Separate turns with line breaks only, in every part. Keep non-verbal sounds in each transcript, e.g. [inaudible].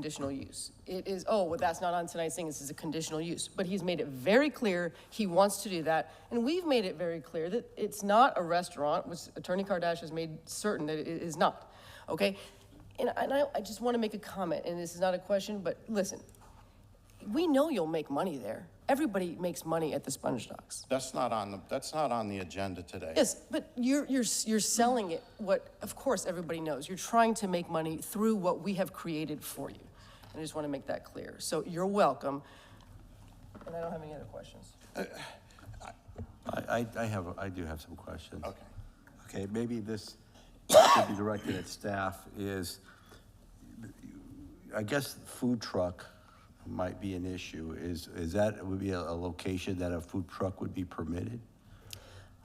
conditional use. It is, oh, well, that's not on tonight's thing, this is a conditional use. But he's made it very clear he wants to do that, and we've made it very clear that it's not a restaurant, which Attorney Kardash has made certain that it is not, okay? And and I, I just want to make a comment, and this is not a question, but listen, we know you'll make money there. Everybody makes money at the Sponge Docks.
That's not on the, that's not on the agenda today.
Yes, but you're, you're, you're selling it what, of course, everybody knows. You're trying to make money through what we have created for you. And I just want to make that clear. So you're welcome. And I don't have any other questions.
I, I, I have, I do have some questions.
Okay.
Okay, maybe this should be directed at staff is, I guess food truck might be an issue. Is, is that, would be a, a location that a food truck would be permitted?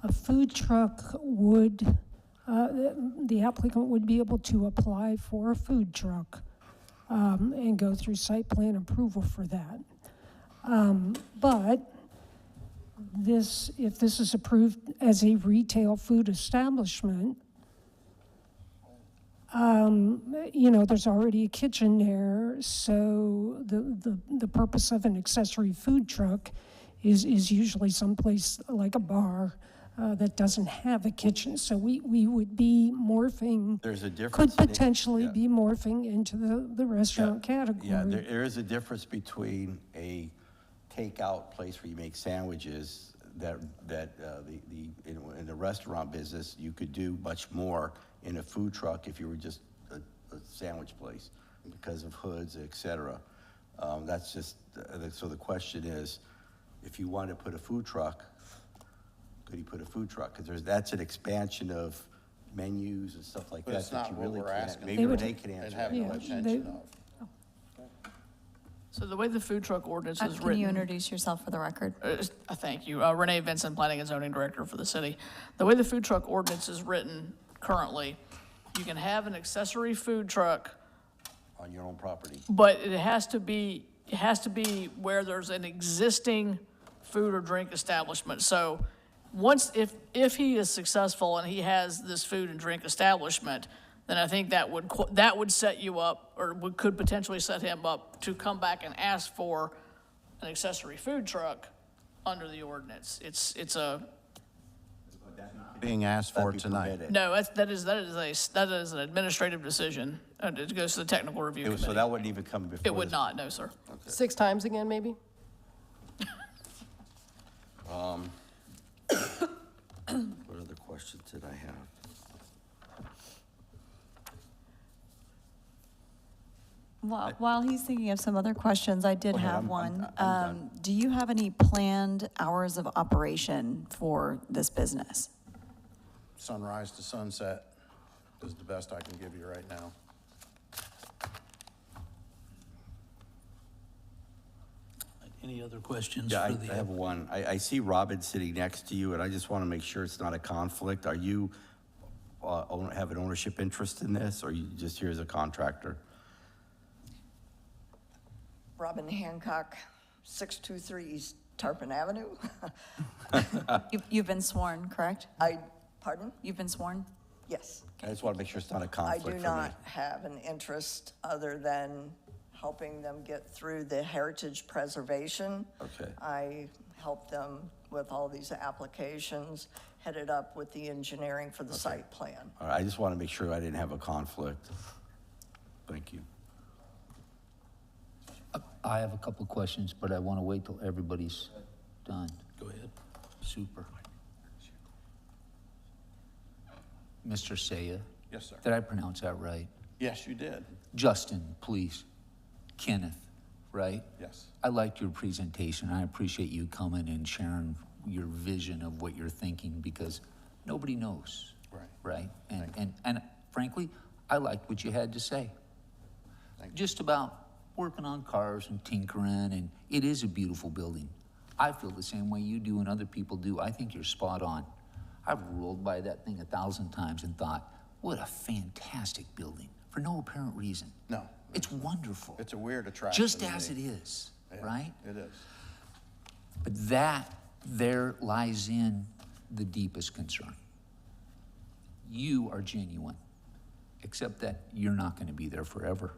A food truck would, uh, the applicant would be able to apply for a food truck um, and go through site plan approval for that. Um, But this, if this is approved as a retail food establishment, um, you know, there's already a kitchen there, so the, the, the purpose of an accessory food truck is, is usually someplace like a bar uh, that doesn't have a kitchen. So we, we would be morphing.
There's a difference in-
Could potentially
yeah.
be morphing into the, the restaurant category.
Yeah, there, there is a difference between a takeout place where you make sandwiches that, that, uh, the, the, in, in the restaurant business, you could do much more in a food truck if you were just a, a sandwich place because of hoods, et cetera. Um, that's just, uh, the- so the question is, if you want to put a food truck, could you put a food truck? Because there's, that's an expansion of menus and stuff like
But
that
it's
that
not
you
what
really
we're
can't.
asking.
Maybe
would-
they can answer
And
that
have no
Yeah,
question.
intention
they-
of.
So the way the food truck ordinance
Uh,
is
Can you
written,
introduce yourself for the record?
uh, is- uh, thank you, Uh, Renee Vincent, Planning and Zoning Director for the city. The way the food truck ordinance is written currently, you can have an accessory food truck,
On your own property.
but it has to be, it has to be where there's an existing food or drink establishment. So once, if, if he is successful and he has this food and drink establishment, then I think that would, qu- that would set you up, or would, could potentially set him up to come back and ask for an accessory food truck under the ordinance. It's, it's a,
Being asked for
That'd be
tonight.
permitted.
no, that's, that is, that is a, s- that is an administrative decision, and it goes to the technical review
It was- So
committee.
that wouldn't even come before?
It would
this-
not, no, sir.
Six times again, maybe?
What other questions did I have?
While while he's thinking of some other questions, I did
Go ahead, I'm-
have
I'm-
one.
I'm done.
Um, Do you have any planned hours of operation for this business?
Sunrise to sunset is the best I can give you right now.
Any other questions
Yeah,
for
I- I have
the,
one. I, I see Robin sitting next to you, and I just want to make sure it's not a conflict. Are you, uh, own- have an ownership interest in this, or you just here as a contractor?
Robin Hancock, 623 East Tarpon Avenue. [laughs]
You- You've been sworn, correct?
I, pardon?
You've been sworn?
Yes.
I just want to make sure it's not a
I
conflict for
do
me.
not have an interest other than helping them get through the heritage preservation.
Okay.
I helped them with all these applications, headed up with the engineering for the site plan.
All right, I just want to make sure I didn't have a conflict. Thank you.
I have a couple of questions, but I want to wait till everybody's done.
go ahead.
Super. Mr. Saya,
Yes, sir.
did I pronounce that right?
Yes, you did.
Justin, please. Kenneth, right?
Yes.
I liked your presentation. I appreciate you coming and sharing your vision of what you're thinking because nobody knows.
Right.
Right? And, and, and frankly, I liked what you had to say. Just about working on cars and tinkering, and it is a beautiful building. I feel the same way you do and other people do. I think you're spot on. I've rolled by that thing a thousand times and thought, what a fantastic building for no apparent reason.
No.
It's wonderful
It's a weird attraction.
just
to
as it
me.
is,
Yeah,
right?
It is.
But that, there lies in the deepest concern. You are genuine, except that you're not going to be there forever.